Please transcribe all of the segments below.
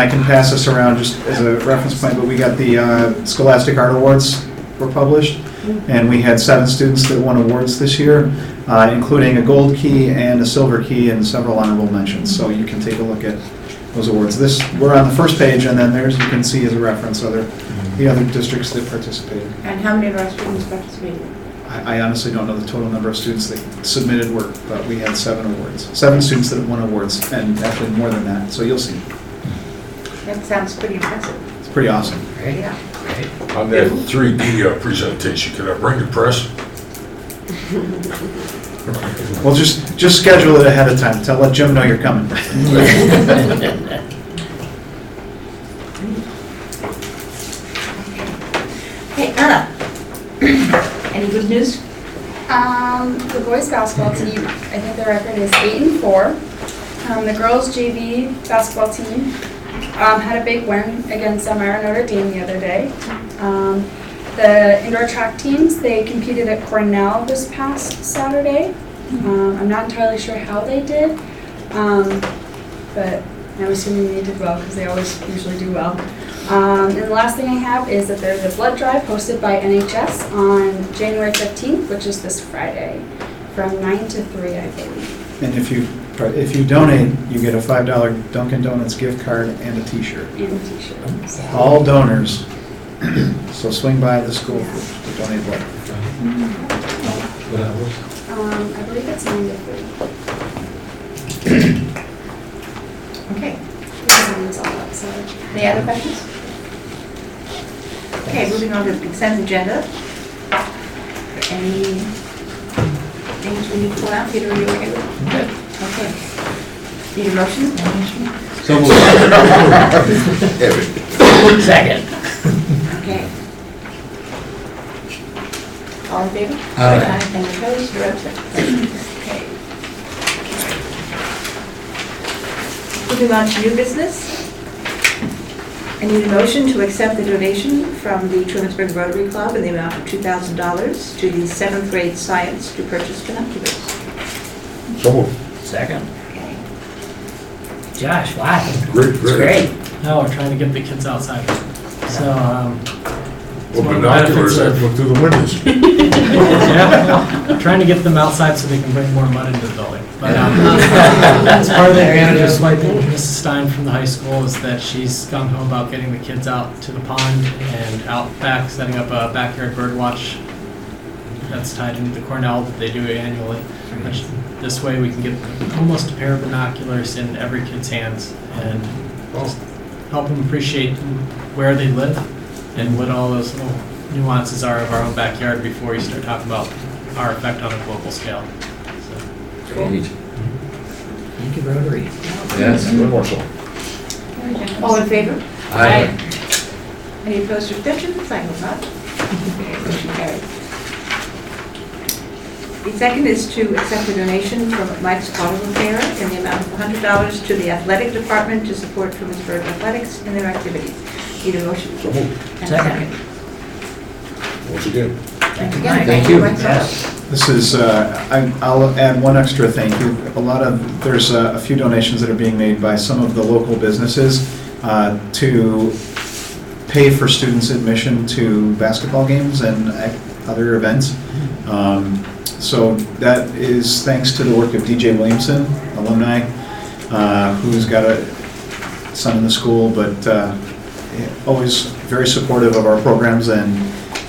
I can pass this around just as a reference point, but we got the uh, Scholastic Art Awards were published, and we had seven students that won awards this year, uh, including a gold key and a silver key and several honorable mentions. So you can take a look at those awards. This, we're on the first page, and then there's, you can see as a reference other, the other districts that participated. And how many of our students participated? I I honestly don't know the total number of students that submitted work, but we had seven awards, seven students that won awards, and actually more than that, so you'll see. That sounds pretty impressive, It's pretty awesome. yeah. On that 3D uh, presentation, can I bring the press? Well, just, just schedule it ahead of time, tell, let Jim know you're coming. Hey, Anna. Any good news? Um, the boys basketball team, I think the record is eight and four. Um, the girls JV basketball team, um, had a big win against Elmira Notre Dame the other day. Um, the indoor track teams, they competed at Cornell this past Saturday. Um, I'm not entirely sure how they did, um, but I'm assuming they did well because they always usually do well. Um, and the last thing I have is that there's a blood drive hosted by NHS on January 15th, which is this Friday, from 9 to 3, I believe. And if you, if you donate, you get a five dollar Dunkin' Donuts gift card and a t-shirt. And a t-shirt. So, All donors, so swing by the school to donate blood. um, I believe it's 9 to 3. Okay, The sign's all up, so. any other questions? Okay, moving on to the consent agenda. Any things we need to pull out, Peter, are you okay with? Good. Okay. Need a motion? So moved. Second. Okay. All in favor? Aye. Any opposed, or absent? Okay. Moving on to new business. I need a motion to accept the donation from the Trumansburg Rotary Club in the amount of $2,000 to the seventh grade science to purchase binoculars. So moved. Second. Okay. Josh, wow. Great, It's great. great. No, we're trying to get the kids outside. So, um, Well, one of the benefits binoculars, I of- look through the windows. yeah, well, trying to get them outside so they can bring more mud into the building. But um, that's part of the advantage of swiping Mrs. Stein from the high school is that she's gung ho about getting the kids out to the pond and out back, setting up a backyard bird watch that's tied into the Cornell that they do annually. Which this way we can get almost a pair of binoculars in every kid's hands and just help them appreciate where they live and what all those little nuances are of our own backyard before you start talking about our effect on a global scale. So, Thank you, Rotary. Yes. One more so. All in favor? Aye. Any opposed or abstentions? I hope not. Okay, Motion carried. The second is to accept a donation from Mike's Auto Repair in the amount of $100 to the athletic department to support Trumansburg athletics and their activities. Need a motion? So moved. And a Second. Once again, Thank Again, you, Mike. thank Thank you, you. Mike Soto. This is, uh, I- I'll add one extra thank you. A lot of, there's uh, a few donations that are being made by some of the local businesses uh, to pay for students' admission to basketball games and ac- other events. Um, So that is thanks to the work of DJ Williamson, alumni, uh, who's got a son in the school, but uh, always very supportive of our programs and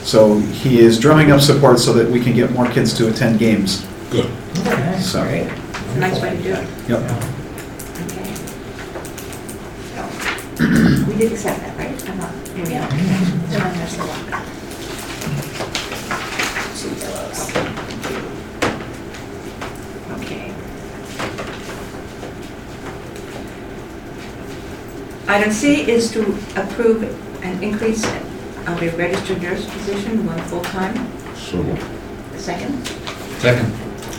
so he is drumming up support so that we can get more kids to attend games. good. Okay, So- great. It's a nice way to do it. Yep. Okay. So, we did accept that, right? I'm not, maybe I'm, I'm not sure. Okay. Item C is to approve an increase of a registered nurse position, one full-time, So moved. second, Second.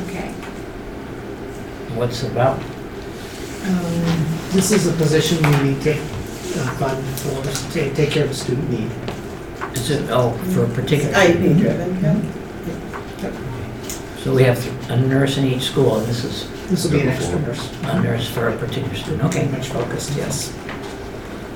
okay. What's it about? Um, This is a position we need to uh, fund for, to take care of a student need. Is it, oh, for a particular? IEP driven, So we have a nurse in each school, and this is This will be an extra nurse, a nurse for a particular student, okay. pretty much focused, yes.